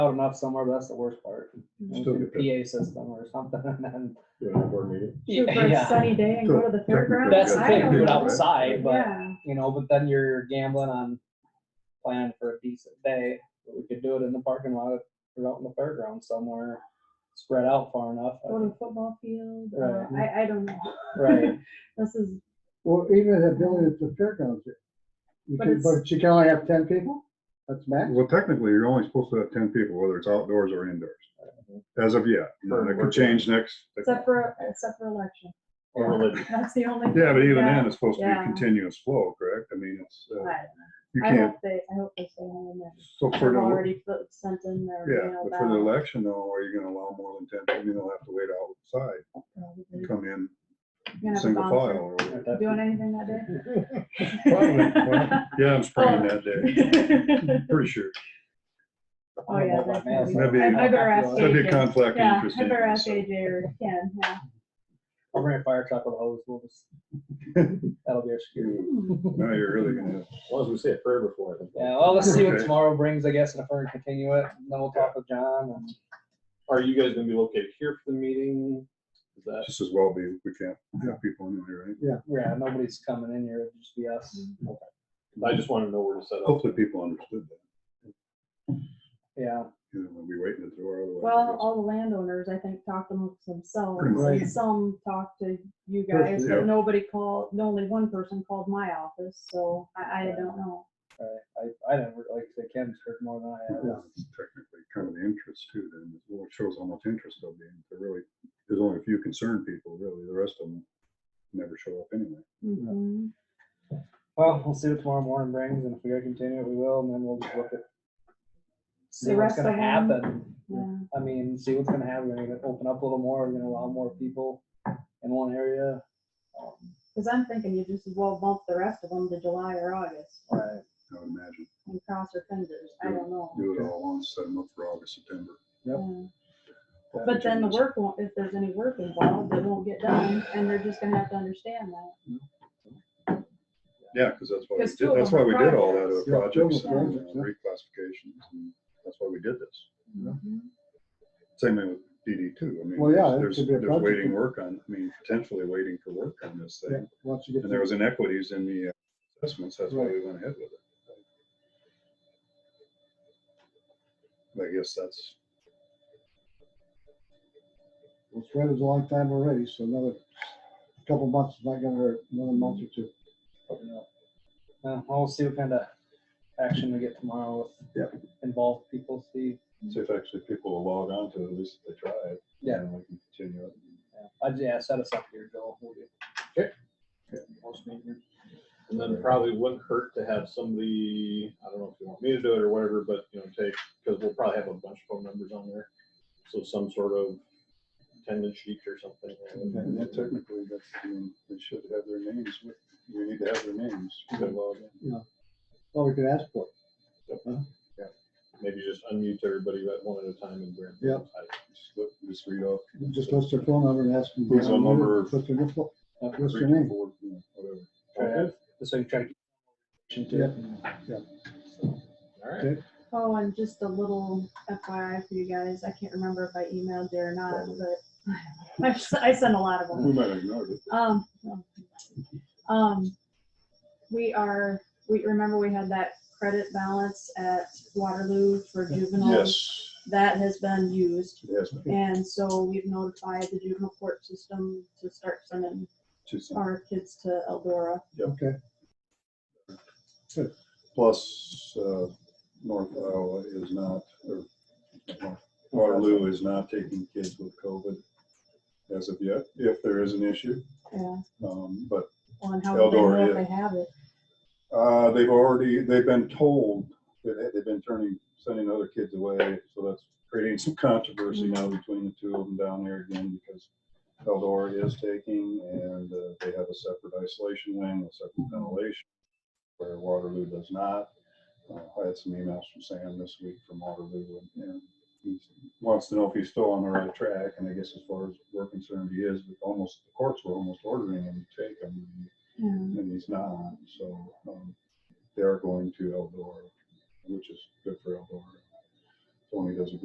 loud enough somewhere, but that's the worst part. Mm-hmm. Still Into get PA system or something and then, you know, board meeting. Yeah, Shoot for a yeah. sunny day and go to the Technically, fairgrounds. that's the I thing, don't do it know. outside, but, Yeah, you know, but then you're gambling on planning for a decent day. But We could do it in the parking lot or out in the fairground somewhere, spread out far enough. uh, go to the football field, uh, Right. I, I don't know. Right, This is, Well, even if building is a fairgrounds, you But can, it's- but you can only have ten people? That's max? Well, technically, you're only supposed to have ten people, whether it's outdoors or indoors, as of yet. And That could change next. except for, except for election, Or religion. that's the only. Yeah, but even Yeah. then, it's supposed to be Yeah. a continuous flow, correct? I mean, it's, uh, I- you I can't, hope they, I hope they stay home and so for they've the, already put- sent in their. yeah, mail but for the ballot, election though, are you gonna allow more than ten? I mean, they'll have to wait outside probably. and come in Gonna have a single file bouncer. or whatever. That- Doing anything that Probably, day? well, Yeah, I'm spraying that day, pretty sure. Oh, yeah. that's gonna be- That'd be- I I better ask uh, That'd be a AJ. conflict of Yeah, interest. I better anyway, ask so. AJ or Ken, yeah. I'll bring a fire truck with a hose, we'll just, that'll be our security. Mm. Now you're really gonna have, As long as we say a prayer before. I think. Yeah, well, let's see what Okay. tomorrow brings, I guess, and if we're gonna continue it, and then we'll talk with John and. Are you guys gonna be located here for the meeting? Is that, just as well be, we can't have people anyway, right? Yeah, nobody's coming in here, it'll just be us. I just wanna know where to set up. Hopefully people understood that, Yeah, you know, we'll be waiting at the door otherwise. Well, all the landowners, I think, talked amongst themselves, Pretty much. and some talked to you guys, Yeah. but nobody called, only one person called my office, so I, I Right. don't know. I, I, I never, like I said, Ken's heard more than I have. That's Technically, kind of the interest too, then, it really shows how much interest there'll be, there really, there's only a few concerned people, really, the rest of them never show up anyway. Mhm. Well, we'll see what tomorrow morning brings, and if we gotta continue it, we will, and then we'll just look at. See The what's rest of gonna them? happen. Yeah, I mean, see what's gonna happen, we're gonna open up a little more, we're gonna allow more people in one area. um, cause I'm thinking you just as well bump the rest of them to July or August Right, I would imagine, and cross your fingers, I don't know. do it all at once, set them up for August, September. Yep. Yeah. But then the work won't, if there's any work involved, it won't get done, and they're just gonna have to understand that. Yeah, because that's why, we Because two of did- that's them why are we did all that, other Yeah, two of projects them and are uh, projects, yeah. reclassifications, and that's why we did this. Mhm. Same thing with DD two, I mean, Well, yeah, there's- there's, it could be a there's project. waiting work on, I mean, potentially waiting for work on this Yeah, thing. Once you get. And there was inequities in the uh, assessments, that's why we went ahead with it. But I guess that's, Well, spread is a long time already, so another couple months is not gonna hurt, another month or two. open up. Uh, we'll see what kind of action we get tomorrow with involved people, see. see if actually people will log on to it, at least if they try it. Yeah. And we can continue it. Yeah, I'd, yeah, set us up here, Joel. we'll do- Okay. Yeah, we'll just meet here. And then probably wouldn't hurt to have somebody, I don't know if you want me to do it or whatever, but you know, take, because we'll probably have a bunch of phone numbers on there. So some sort of attendance sheet or something. And that technically, that's, I mean, they should have their names, with- we need to have their names, they log in. Well, we could ask for it. Maybe just unmute everybody at one at a time and. grab- Yeah. Just look- Just read off. Just list their phone number and ask them. Who's on number- What's their, phone- Okay. what's three their to name? four, you know, Whatever. Try Okay. to- So you try to. keep to it. All right. Oh, and just a little FYI for you guys, I can't remember if I emailed you or not, but I've s- I sent a lot of them. We might have ignored it. Um, um, we are, we, remember we had that credit balance at Waterloo for juveniles? Yes, That has been used, yes. and so we've notified the juvenile court system to start sending Tucson. our kids to Eldora. Okay, Plus, uh, North Iowa is not, or North- Waterloo is not taking kids with COVID as of yet, if there is an issue. Yeah, Um, But uh, on how they know if Eldora, they have it. uh, they've already, they've been told that they've been turning, sending other kids away. So that's creating some controversy now between the two of them down there again because Eldora is taking and uh, they have a separate isolation wing, a separate ventilation where Waterloo does not. Uh, I had some emails from Sam this week from Waterloo and, and he wants to know if he's still on the right track. And I guess as far as we're concerned, he is, but almost, the courts were almost ordering him to take them Yeah. and he's not, so, um, they're going to Eldora, which is